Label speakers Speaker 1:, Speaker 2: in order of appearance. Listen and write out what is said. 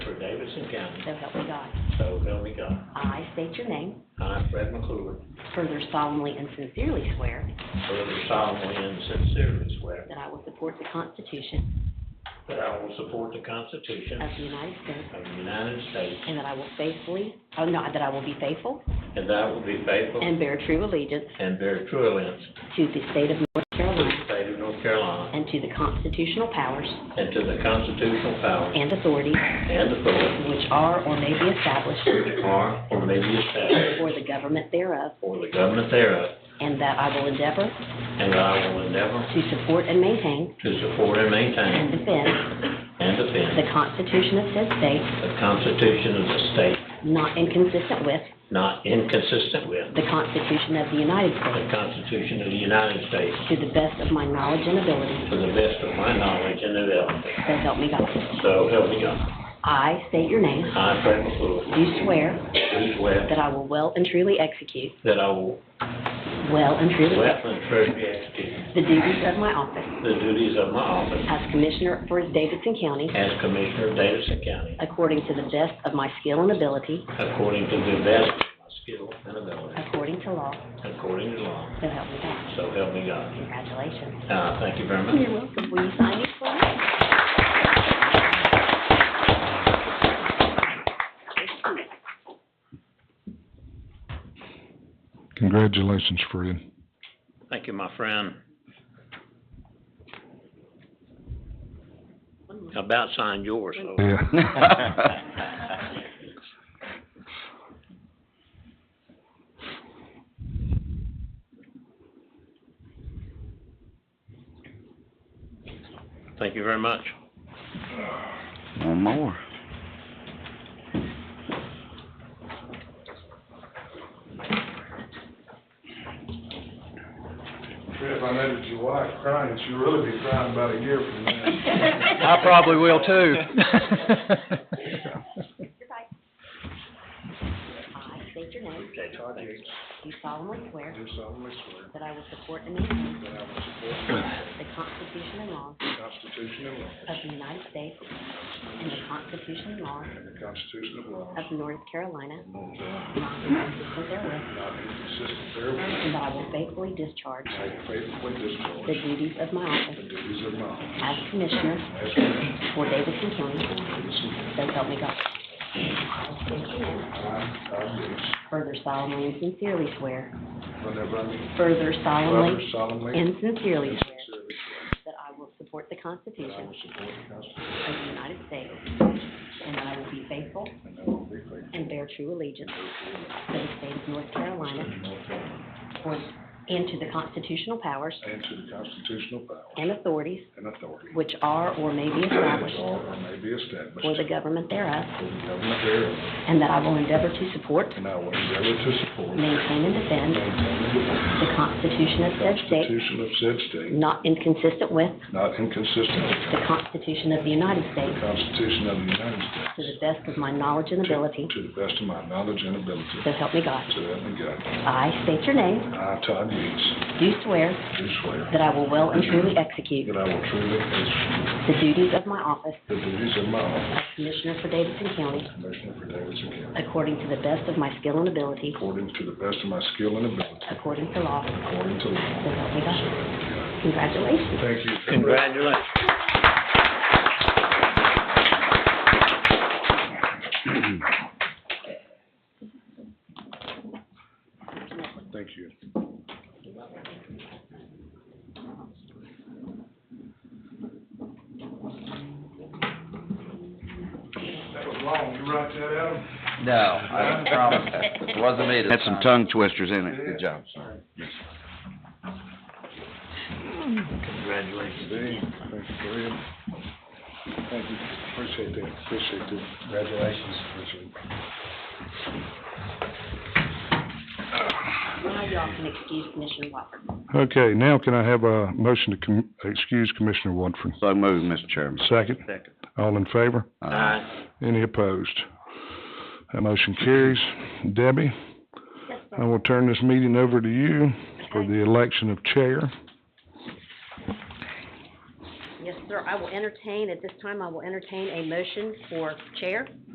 Speaker 1: Jefferson County,
Speaker 2: so help me God.
Speaker 1: so help me God.
Speaker 2: I state your name,
Speaker 1: I, Fred McClure,
Speaker 2: further solemnly and sincerely swear
Speaker 1: further solemnly and sincerely swear
Speaker 2: that I will support the Constitution
Speaker 1: that I will support the Constitution
Speaker 2: of the United States
Speaker 1: of the United States
Speaker 2: and that I will faithfully, oh, no, that I will be faithful
Speaker 1: and that I will be faithful
Speaker 2: and bear true allegiance
Speaker 1: and bear true allegiance
Speaker 2: to the state of North
Speaker 1: to the
Speaker 2: Carolina
Speaker 1: state of North Carolina
Speaker 2: and to the constitutional powers
Speaker 1: and to the constitutional powers
Speaker 2: and authorities
Speaker 1: and authorities
Speaker 2: which are or may be established
Speaker 1: which are or may be established
Speaker 2: for the government thereof,
Speaker 1: for the government thereof,
Speaker 2: and that I will endeavor
Speaker 1: and that I will endeavor
Speaker 2: to support and maintain
Speaker 1: to support and
Speaker 2: and
Speaker 1: maintain
Speaker 2: defend
Speaker 1: and
Speaker 2: the
Speaker 1: defend
Speaker 2: Constitution of said state,
Speaker 1: the Constitution of the state
Speaker 2: not inconsistent with
Speaker 1: not inconsistent with
Speaker 2: the Constitution of the United
Speaker 1: the
Speaker 2: States,
Speaker 1: Constitution of the United States
Speaker 2: to the best of my knowledge and ability,
Speaker 1: to the best of my knowledge and ability.
Speaker 2: so help me God.
Speaker 1: So help me God.
Speaker 2: I state your name,
Speaker 1: I, Fred McClure,
Speaker 2: do swear
Speaker 1: do swear
Speaker 2: that I will well and truly execute,
Speaker 1: that I will
Speaker 2: well and truly
Speaker 1: well
Speaker 2: execute
Speaker 1: and truly execute
Speaker 2: the duties of my office
Speaker 1: the duties of my office
Speaker 2: as Commissioner for Davidson County,
Speaker 1: as Commissioner of Davidson County
Speaker 2: according to the best of my skill and ability,
Speaker 1: according to the best of my skill and ability,
Speaker 2: according to law,
Speaker 1: according to law.
Speaker 2: so help me God.
Speaker 1: So help me God.
Speaker 2: Congratulations.
Speaker 1: Uh, Thank you very much.
Speaker 2: You're welcome. Will you sign these for me?
Speaker 3: Congratulations, Fred.
Speaker 1: Thank you, my friend. About signed yours, though.
Speaker 3: Yeah.
Speaker 1: Thank you very much.
Speaker 4: One more.
Speaker 5: If I noticed your wife crying, she'll really be crying about a year from now.
Speaker 4: I probably will too.
Speaker 2: I state your name.
Speaker 1: Jay Tardy.
Speaker 2: Do solemnly swear
Speaker 5: Do solemnly swear
Speaker 2: that I will support and maintain
Speaker 5: that I will support
Speaker 2: the Constitution and laws
Speaker 5: the Constitution and
Speaker 2: of
Speaker 5: laws
Speaker 2: the United States and the Constitution and laws
Speaker 5: and the Constitution of laws
Speaker 2: of North Carolina,
Speaker 5: of the
Speaker 2: not inconsistent therewith,
Speaker 5: not inconsistent therewith,
Speaker 2: and that I will faithfully discharge
Speaker 5: and I will faithfully
Speaker 2: the
Speaker 5: discharge
Speaker 2: duties of my
Speaker 5: the
Speaker 2: office
Speaker 5: duties of my office
Speaker 2: as Commissioner
Speaker 5: as Commissioner
Speaker 2: for Davidson County,
Speaker 5: of Davidson County.
Speaker 2: so help me God. I state your name.
Speaker 5: I, I do,
Speaker 2: Further solemnly and sincerely swear,
Speaker 5: whenever I meet
Speaker 2: further
Speaker 5: brother
Speaker 2: solemnly
Speaker 5: solemnly and
Speaker 2: and sincerely swear
Speaker 5: sincerely
Speaker 2: that I will support the
Speaker 5: swear that I
Speaker 2: Constitution
Speaker 5: will support the Constitution
Speaker 2: of the United States and that I will be faithful
Speaker 5: and I will be faithful to
Speaker 2: and bear true allegiance
Speaker 5: the
Speaker 2: to the state of North Carolina
Speaker 5: North Carolina
Speaker 2: for- and to the constitutional powers
Speaker 5: and to the constitutional powers
Speaker 2: and authorities
Speaker 5: and authorities
Speaker 2: which are or may be
Speaker 5: which
Speaker 2: established
Speaker 5: are or may be established
Speaker 2: for the government thereof,
Speaker 5: For the government thereof,
Speaker 2: and that I will endeavor to support,
Speaker 5: and I will endeavor to support,
Speaker 2: maintain, and defend
Speaker 5: maintain,
Speaker 2: the Constitution of
Speaker 5: and
Speaker 2: said
Speaker 5: defend the
Speaker 2: state,
Speaker 5: Constitution of said state,
Speaker 2: not inconsistent with
Speaker 5: not inconsistent
Speaker 2: the
Speaker 5: with
Speaker 2: Constitution of the United
Speaker 5: the
Speaker 2: States,
Speaker 5: Constitution of the United
Speaker 2: to the
Speaker 5: States,
Speaker 2: best of my knowledge and ability,
Speaker 5: to the best of my knowledge and ability,
Speaker 2: so help me God.
Speaker 5: so help me God.
Speaker 2: I state your name,
Speaker 5: I, Todd Yates,
Speaker 2: do swear
Speaker 5: do swear
Speaker 2: that I will well and truly execute
Speaker 5: that I will truly execute
Speaker 2: the duties of my office
Speaker 5: the duties of my office,
Speaker 2: as Commissioner for Davidson County,
Speaker 5: as Commissioner for Davidson County,
Speaker 2: according to the best of my skill and ability,
Speaker 5: according to the best of my skill and ability,
Speaker 2: according to law,
Speaker 5: according to
Speaker 2: so
Speaker 5: law,
Speaker 2: help me God.
Speaker 5: so help me God.
Speaker 2: Congratulations.
Speaker 5: Thank you.
Speaker 1: Congratulations.
Speaker 5: Thank you. That was long, you write that, Adam?
Speaker 6: No, I promise. It wasn't me this
Speaker 4: Had some
Speaker 6: time.
Speaker 4: tongue twisters in it. Good job.
Speaker 5: Sorry.
Speaker 1: Congratulations.
Speaker 5: Thank you, Graham. Thank you, appreciate that, appreciate that. Congratulations.
Speaker 2: Now y'all can excuse Commissioner Walker.
Speaker 3: Okay, now can I have a motion to com- excuse Commissioner Woodford?
Speaker 4: So moved, Mr. Chairman.
Speaker 3: Second?
Speaker 1: Second.
Speaker 3: All in favor?
Speaker 1: Aye.
Speaker 3: Any opposed? That motion carries. Debbie, I will turn this meeting over to you for the election of chair.
Speaker 2: Yes, sir. I will entertain, at this time, I will entertain a motion for chair.